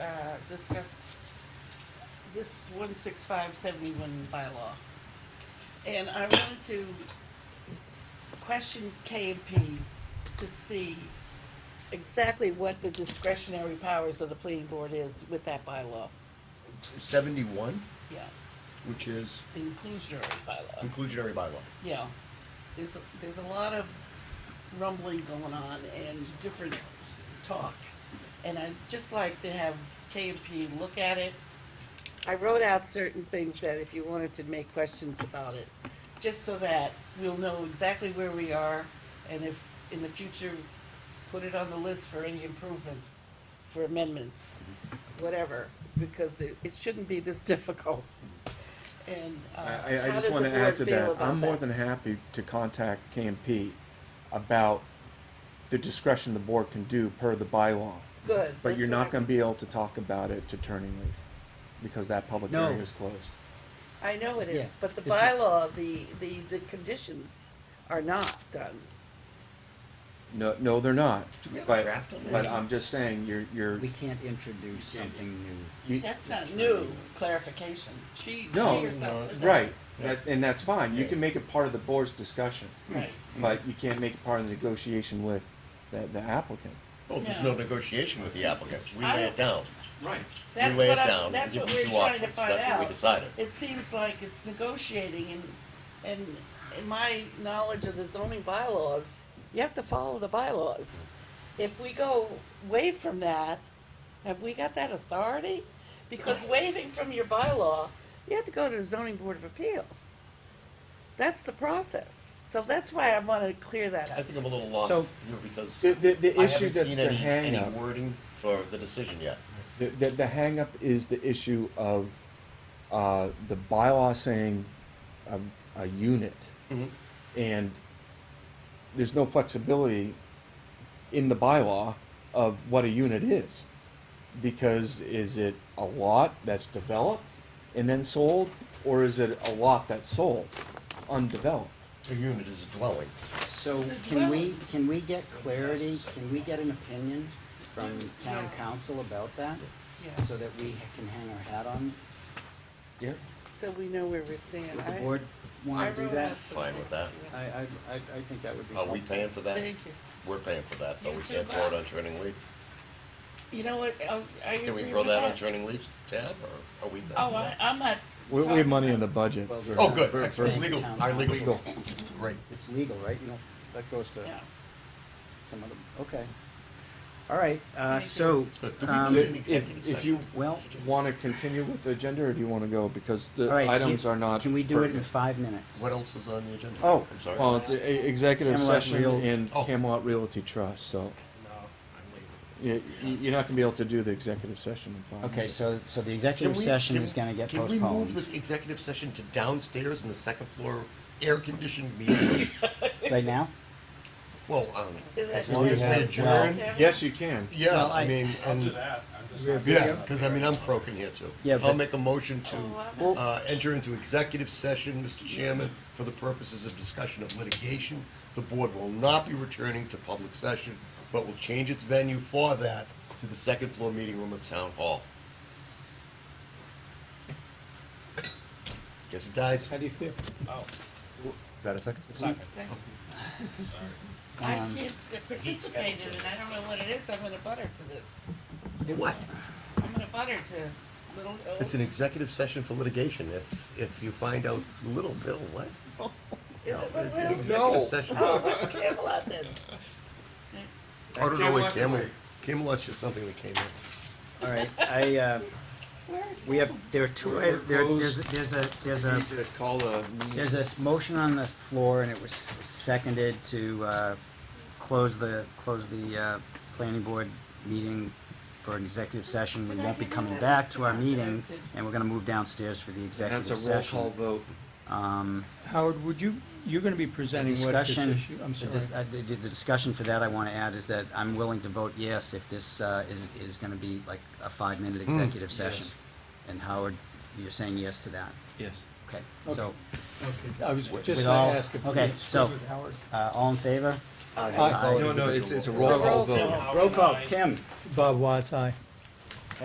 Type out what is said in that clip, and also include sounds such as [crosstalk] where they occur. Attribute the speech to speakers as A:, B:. A: uh, discuss this one six five seventy-one bylaw. And I wanted to s- question K and P to see exactly what the discretionary powers of the planning board is with that bylaw,
B: Seventy-one,
A: yeah,
B: which is
A: the inclusionary bylaw.
B: inclusionary bylaw.
A: Yeah, there's, a- there's a lot of rumbling going on and different talk. And I'd just like to have K and P look at it. I wrote out certain things that if you wanted to make questions about it, just so that we'll know exactly where we are and if in the future, put it on the list for any improvements, for amendments, whatever, because it, it shouldn't be this [laughs] difficult. And, uh,
C: I, I- I
A: how does
C: just
A: the
C: want to add
A: board
C: to
A: feel
C: that.
A: about
C: I'm more
A: that?
C: than happy to contact KMP about the discretion the board can do per the bylaw.
A: Good.
C: But you're
A: that's
C: not
A: what
C: going to be able to talk about it to Turning Leaf because that public
D: No.
C: hearing is closed.
A: I I know it
D: Yeah,
A: is, but the
D: it's not-
A: bylaw, the, the, the conditions are not done.
C: No, no, they're not.
B: Do we have a
C: But-
B: draft on that?
C: But um, I'm just saying, you're, you're,
D: We can't introduce something new.
C: you-
A: That's not new clarification. She, she
C: No,
A: herself said that.
C: right. That- And that's fine. You
B: Yeah.
C: can make it part of the board's discussion,
A: Right.
C: but you can't make it part of the negotiation with the, the applicant.
B: Well, Oh, there's
A: No.
B: no negotiation with the applicant. We
A: I
B: lay
A: don't-
B: it down.
C: Right.
A: That's
B: lay
A: what
B: it down
A: I'm,
B: and
A: that's
B: give
A: what
B: us
A: we're
B: two
A: trying to
B: options.
A: find
B: That's what we
A: out.
B: decided.
A: It seems like it's negotiating and, and in my knowledge of the zoning bylaws, you have to follow the bylaws. If we go away from that, have we got that authority? Because waiving from your bylaw, you have to go to the zoning board of appeals. That's the process. So that's why I wanna clear that
B: I
A: up.
B: think I'm a little
C: So-
B: lost here because
C: The, the, the
B: I
C: issue
B: haven't
C: that's
B: seen
C: the
B: any,
C: hang
B: any
C: up,
B: wording for the decision yet.
C: the, the, the hang up is the issue of, uh, the bylaw saying a, a unit. And there's no flexibility in the bylaw of what a unit is. Because is it a lot that's developed and then sold, or is it a lot that's sold, undeveloped?
B: A unit is a dwelling.
D: So
A: It's a
D: can we,
A: dwelling.
D: can we get clarity, can we get an opinion from town council about that?
A: Yeah.
D: So that we can hang our hat on,
C: Yeah.
A: So we know where we stand.
D: would
A: I-
D: the board
A: I
D: wanna do
A: wrote
D: that?
A: out some
B: Fine with
A: things.
D: I, I, I, I think that would be
B: Are
D: helpful.
B: Oh, we paying for that?
A: Thank you.
B: We're paying for that, but
A: You
B: we
A: too,
B: can't throw it
A: Bob.
B: on turning leaf.
A: You know what, I, I
B: Can we
A: agree
B: throw
A: with
B: that on turning leaf tab or are we? done
A: Oh,
B: with
A: I,
B: that?
A: I'm not.
C: We, we have money in the budget.
D: Well,
C: for-
B: Oh, good,
C: for- for-
B: excellent, legal,
D: Town
B: our
D: council.
B: legal, great.
D: It's legal, right? You know, that goes to
A: Yeah.
D: some other, okay. All right, uh,
A: Thank
D: so,
B: Good. Do we
D: um,
B: need an
C: If,
B: executive
C: if you
B: session?
D: well,
C: want to continue with the agenda, or do you want to go, because
D: all
C: the
D: right.
C: items
D: can-
C: are not.
D: Can we do it in
C: pertinent.
D: five minutes?
B: What else is on the agenda?
C: Oh,
B: I'm sorry.
C: well, it's a- a- executive
D: Camelot
C: session
D: Real-
C: in
B: Oh.
C: Camelot Realty Trust, so
E: No, I'm leaving.
C: you, you- you're not going to be able to do the executive session in five
D: Okay,
C: minutes.
D: so, so the
B: Can
D: executive
B: we-
D: session
B: can-
D: is gonna get
B: Can we move
D: postponed
B: the executive session to downstairs in the second floor air-conditioned meeting room? [coughs]
D: right now?
B: Well, um,
A: Is
B: as
A: that-
B: long as we
D: Well,
B: adjourn,
C: Yes, you can.
B: yeah,
D: Well,
B: I
D: I-
B: mean,
E: I'll do
B: and,
E: that. I'm just.
D: We're
E: not-
B: yeah, because I mean, I'm croaking here too.
D: Yeah,
B: I'll
D: but-
B: make a motion to,
A: Oh,
B: uh, enter into executive session, Mr. Chairman, for the purposes of discussion of litigation. The board will not be returning to public session, but will change its venue for that to the second floor meeting room of Town Hall. Guess it dies.
C: do you feel?
E: Oh,
B: Is that a second?
E: it's not good. Sorry.
A: I
D: Um,
A: can't participate in it, I don't know what it is, I'm gonna butter to this.
B: What?
A: I'm gonna butter to Little Hills.
B: It's an executive session for litigation. If, if you find out Little Hill, what?
A: Is it
B: No,
A: Little
B: it's an
A: Hills?
B: executive session.
A: Oh, it's Camelot then.
B: I don't know what
C: Camelot
B: Camelot,
C: Way.
B: Camelot's just something that came in.
D: All right, I, uh,
A: Where is
D: we have, there are two,
C: We're- we're
D: there, there's,
C: closed.
D: there's a, there's
C: I
D: a,
C: need to call the meeting.
D: there's a s- motion on the floor and it was seconded to, uh, close the, close the, uh, planning board meeting for an executive session. We won't be coming back to our meeting and we're gonna move downstairs for the
C: That's a
D: executive
C: roll
D: session.
C: call vote.
D: Um,
F: Howard, would you, you're gonna be presenting what this
D: discussion,
F: issue, I'm
D: the
F: sorry.
D: dis- uh, the, the the discussion for that I wanna add is that I'm willing to vote yes if this, uh, is, is gonna be like a five-minute executive session.
C: Hmm. yes.
D: And Howard, you're saying yes to that,
C: Yes.
D: okay, so,
F: I was just
D: with
F: gonna
D: all-
F: ask if we
D: okay,
F: could
D: so-
F: speak with Howard.
D: uh, all in favor?
B: I
F: Uh,
B: call it
C: no, no,
B: individual
C: it's- it's a
B: vote.
C: roll call
A: It's a roll
C: vote.
F: Oh,
E: How
D: Roll
E: can
D: call,
E: I-
D: Tim,
F: Bob Watts, aye.